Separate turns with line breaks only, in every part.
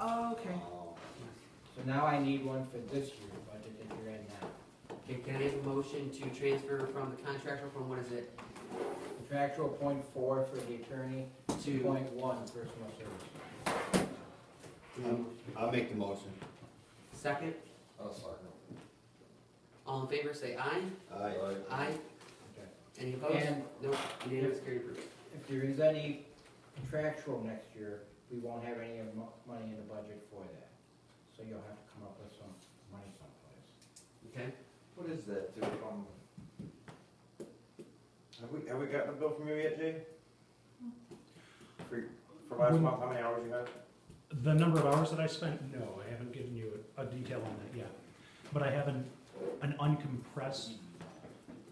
Oh,
now I need one for this year budget that you're in now.
Okay, can I have a motion to transfer from the contractual from, what is it,
Contractual point four for the attorney,
to,
point one personal service.
to
I'll make the motion.
second?
I'll second.
All in favor, say aye.
Aye.
Aye.
Okay.
Any opposed?
And-
No, unanimous, carried, approved.
If there is any contractual next year, we won't have any of mo- money in the budget for that. So you'll have to come up with some money someplace.
Okay,
What is that, dude, um? Have we, have we gotten a bill from you yet, Jay? For, for last
When-
month, how many hours you had?
The number of hours that I spent, no, I haven't given you a a detail on that yet. But I have an, an uncompressed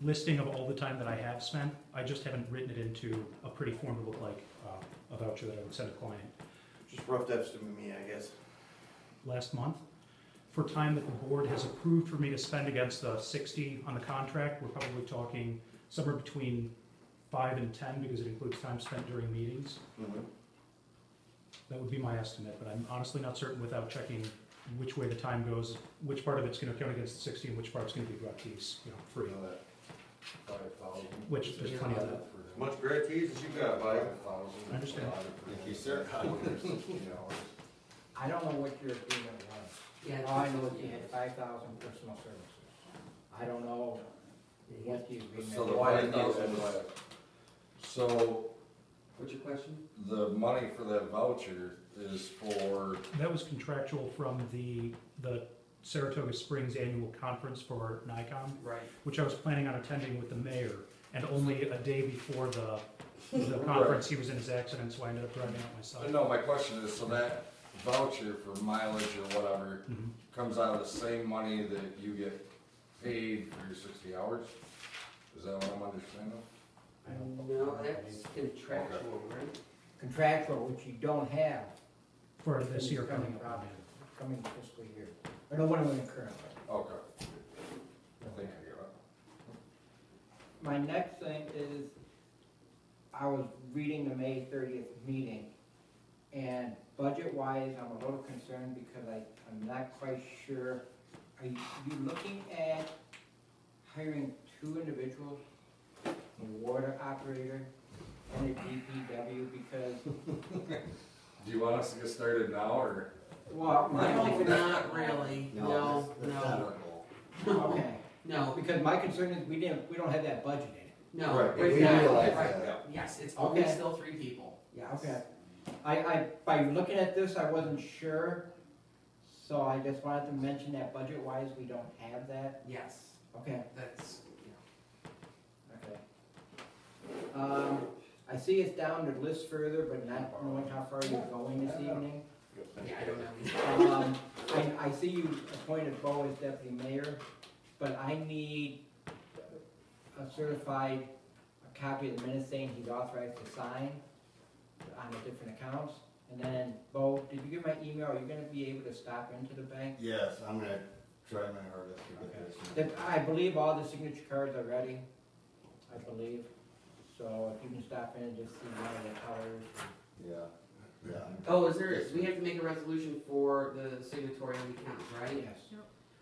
listing of all the time that I have spent. I just haven't written it into a pretty form to look like uh, a voucher that I would send a client.
Just rough estimate me, I guess.
Last month, for time that the board has approved for me to spend against the 60 on the contract, we're probably talking somewhere between five and 10 because it includes time spent during meetings.
Mm-hmm.
That would be my estimate, but I'm honestly not certain without checking which way the time goes, which part of it's gonna count against the sixty and which part's gonna be gratuitous, you know, free, which there's plenty of that.
As much gratuities as you got, buddy.
I understand.
Thank you, sir.
I don't know what your agreement was.
yeah.
All I know is you had five thousand personal services. I don't know
Yeah.
what the
So
agreement
the
was.
five thousand, so
What's your question?
the money for that voucher is for,
That was contractual from the, the Saratoga Springs Annual Conference for NICOM.
Right.
which I was planning on attending with the mayor, and only a day before the, the conference, he was in his accident, so I ended up driving out myself.
uh, no, my question is, so that voucher for mileage or whatever
Mhm.
comes out of the same money that you get paid for your sixty hours? Is that what I'm understanding?
No, that's contractual, right?
Contractual, which you don't have
For this year coming
Coming
up.
up. coming fiscal year, or no, what am I in currently?
Okay, I think I get it.
My next thing is, I was reading the May thirtieth meeting, and budget-wise, I'm a little concerned because I, I'm not quite sure. Are you, you looking at hiring two individuals, a water operator and a DPW, because,
Do you want us to get started now, or?
well, my
No,
only,
not really, no, no,
okay,
no,
because my concern is we didn't, we don't have that budgeted.
no.
Right,
right
we
now,
realize
right,
that.
Yes, it's only
Okay.
still three people, yes.
Okay. I, I, by looking at this, I wasn't sure, so I just wanted to mention that budget-wise, we don't have that.
Yes,
Okay,
that's, yeah.
okay. Um, I see it's down to list further, but not knowing how far you're going this evening.
Yeah, I don't know.
Um, I, I see you appointed Bo as deputy mayor, but I need a certified, a copy of the minutes saying he's authorized to sign on the different accounts. And then, Bo, did you get my email? Are you gonna be able to stop into the bank?
Yes, I'm gonna try my hardest to get this.
That, I believe all the signature cards are ready, I believe. So if you can stop in and just see one of the colors.
Yeah, yeah.
Oh, is there, we have to make a resolution for the signatory on the account, right?
Yes.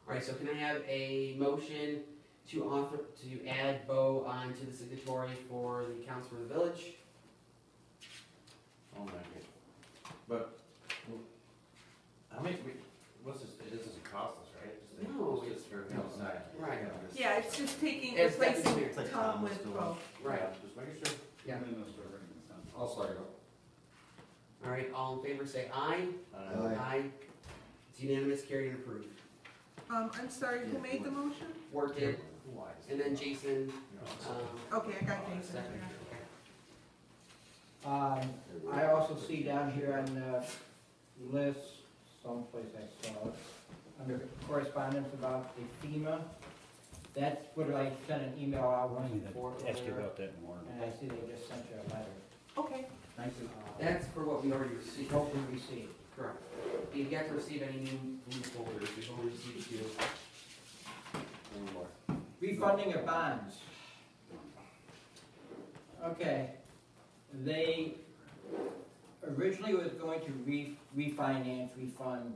All right, so can I have a motion to author, to add Bo onto the signatory for the accounts for the village?
Oh my God.
But, I mean, we, what's this, it doesn't cost us, right? It's just-
No,
It's just for,
No, it's not.
Right.
Yeah, it's just taking,
It's
replacing
definitely-
It's like
Tom
Thomas
with
doing.
Bo.
Right,
Yeah, Just making sure.
I'll start it.
all right, all in favor, say aye.
Uh,
Aye.
It's unanimous, carried and approved.
Um, I'm sorry, who made the motion?
Worked it, and then Jason, um,
Okay, I got Jason.
second, okay.
Um, I also see down here on the list, someplace I saw it, under correspondence about the FEMA. That's what I sent an email out once before. earlier,
that more.
And I see they just sent you a letter.
Okay,
uh,
That's for what we already received,
Hopefully received.
correct. You've got to receive any new blue folders, we've only received two.
Refunding of bonds. Okay, they, originally was going to re, refinance, refund